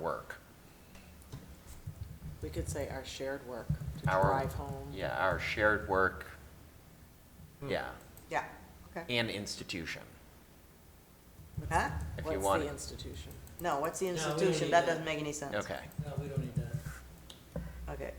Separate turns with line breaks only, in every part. work.
We could say our shared work, to
Our-
drive home.
Yeah, our shared work, yeah,
Yeah, okay.
and institution.
Huh?
If you
What's
want
the
it.
institution?
No, what's the
No, we don't
institution?
need
That
that.
doesn't make any sense.
Okay,
No, we don't need that.
Okay.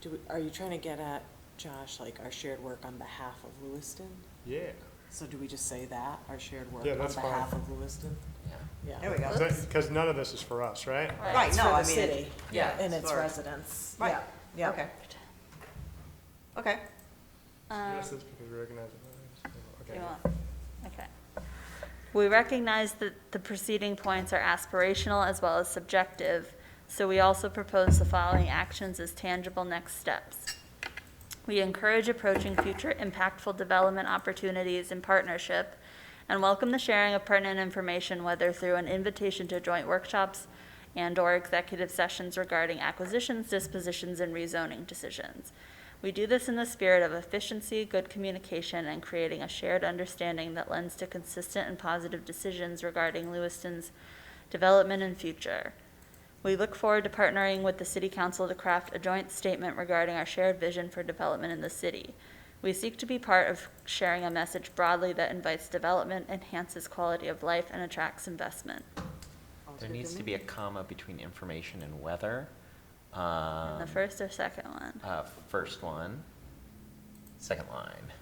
Do, we- are you trying to get at, Josh, like our shared work on behalf of Lewiston?
Yeah.
So do we just say that, our shared work
Yeah,
on
that's fine.
behalf of Lewiston?
yeah.
Yeah.
There we go.
Because none of this is for us, right?
Right,
It's
no,
for the
I mean,
city
it-
Yeah.
and its
for-
residents.
Right,
Yeah, yeah.
okay. Okay,
Yes,
Um,
that's because we recognize it. Okay.
Um, You want- Okay. We recognize that the preceding points are aspirational as well as subjective, so we also propose the following actions as tangible next steps. We encourage approaching future impactful development opportunities in partnership and welcome the sharing of pertinent information, whether through an invitation to joint workshops and/or executive sessions regarding acquisitions, dispositions, and rezoning decisions. We do this in the spirit of efficiency, good communication, and creating a shared understanding that lends to consistent and positive decisions regarding Lewiston's development and future. We look forward to partnering with the City Council to craft a joint statement regarding our shared vision for development in the city. We seek to be part of sharing a message broadly that invites development, enhances quality of life, and attracts investment.
There needs to be a comma between information and weather. Um,
And the first or second one,
Uh, first one, second line.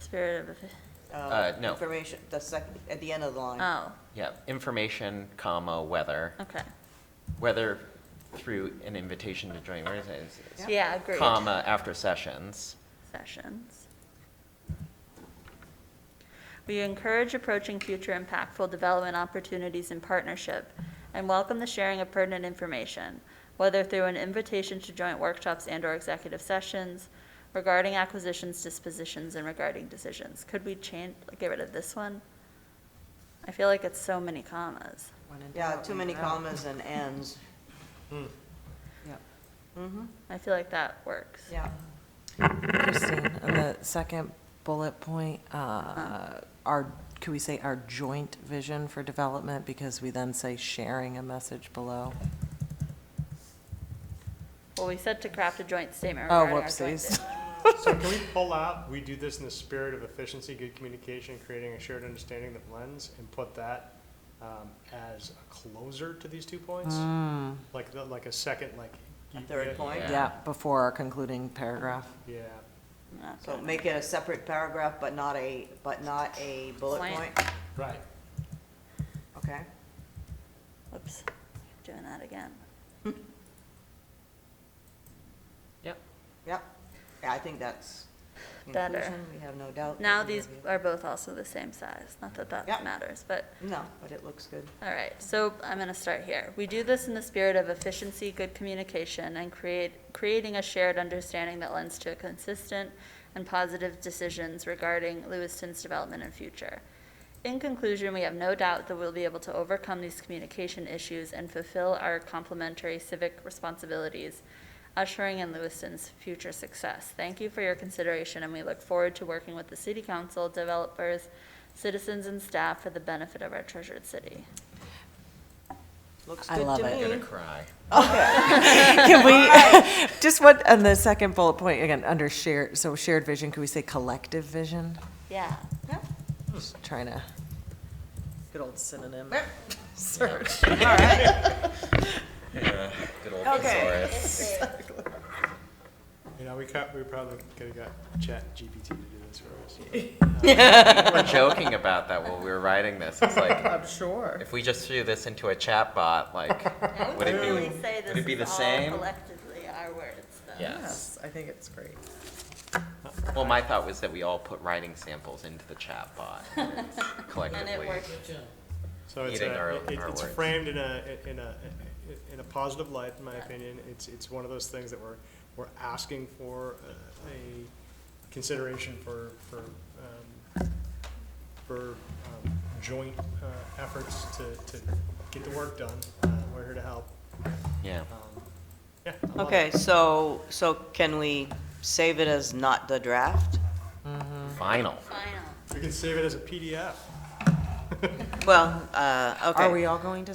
spirit of,
uh,
no.
information, the second, at the end of the line.
oh,
Yeah, information, comma, weather,
okay.
whether through an invitation to join, where is it? It's- it's
Yeah, agreed.
Comma, after sessions.
sessions. We encourage approaching future impactful development opportunities in partnership and welcome the sharing of pertinent information, whether through an invitation to joint workshops and/or executive sessions regarding acquisitions, dispositions, and regarding decisions. Could we change, get rid of this one? I feel like it's so many commas.
Yeah, too many commas and ends. Mm-hmm,
I feel like that works.
yeah.
Kristen, on the second bullet point, uh, our, could we say our joint vision for development? Because we then say sharing a message below.
Well, we said to craft a joint statement
Oh,
regarding our joint
whoopsies.
vision.
So can we pull out, we do this in the spirit of efficiency, good communication, creating a shared understanding that blends, and put that um, as a closer to these two points? Like, the- like a second, like.
Mm. A
you-
third
yeah,
point.
Yeah.
Yeah, before our concluding paragraph.
Yeah,
I'm not
So
gonna-
make it a separate paragraph, but not a, but not a bullet
Point.
point,
right.
okay?
Whoops, doing that again.
Yep.
Yep, yeah, I think that's.
Better.
conclusion. We have no doubt. that
Now
we
these
have you.
are both also the same size, not that
Yeah.
that matters, but,
No, but it looks good.
all right, so I'm gonna start here. We do this in the spirit of efficiency, good communication, and create, creating a shared understanding that lends to consistent and positive decisions regarding Lewiston's development and future. In conclusion, we have no doubt that we'll be able to overcome these communication issues and fulfill our complementary civic responsibilities, ushering in Lewiston's future success. Thank you for your consideration, and we look forward to working with the city council, developers, citizens, and staff for the benefit of our treasured city.
Looks
I
good
love
to
it.
I'm gonna
me.
cry.
Can we, just what, on the second bullet point, again, under shared, so shared vision, could we say collective vision?
Yeah.
Yeah.
Just Trying to. Good old synonym.
Search.
All right.
Good old
Okay.
thesaurus.
You know, we cut, we probably could have got Chat GPT to do this for us.
We were joking about that while we were writing this. It's like,
I'm sure.
if we just threw this into a chat bot, like, would it be, would it be the same?
Collectively, our words, though.
Yes.
I think it's great.
Well, my thought was that we all put writing samples into the chat bot
And it
collectively.
worked.
So it's,
Eating our-
a- it-
our
it's
words.
framed in a, in a, in a positive light, in my opinion. It's, it's one of those things that we're, we're asking for uh, a consideration for, for, um, for um, joint uh, efforts to, to get the work done. Uh, We're here to help.
Yeah.
Um, Yeah. I love it.
Okay, so, so can we save it as not the draft?
Final.
Final.
We can save it as a PDF.
Well, uh, okay.
Are we all going to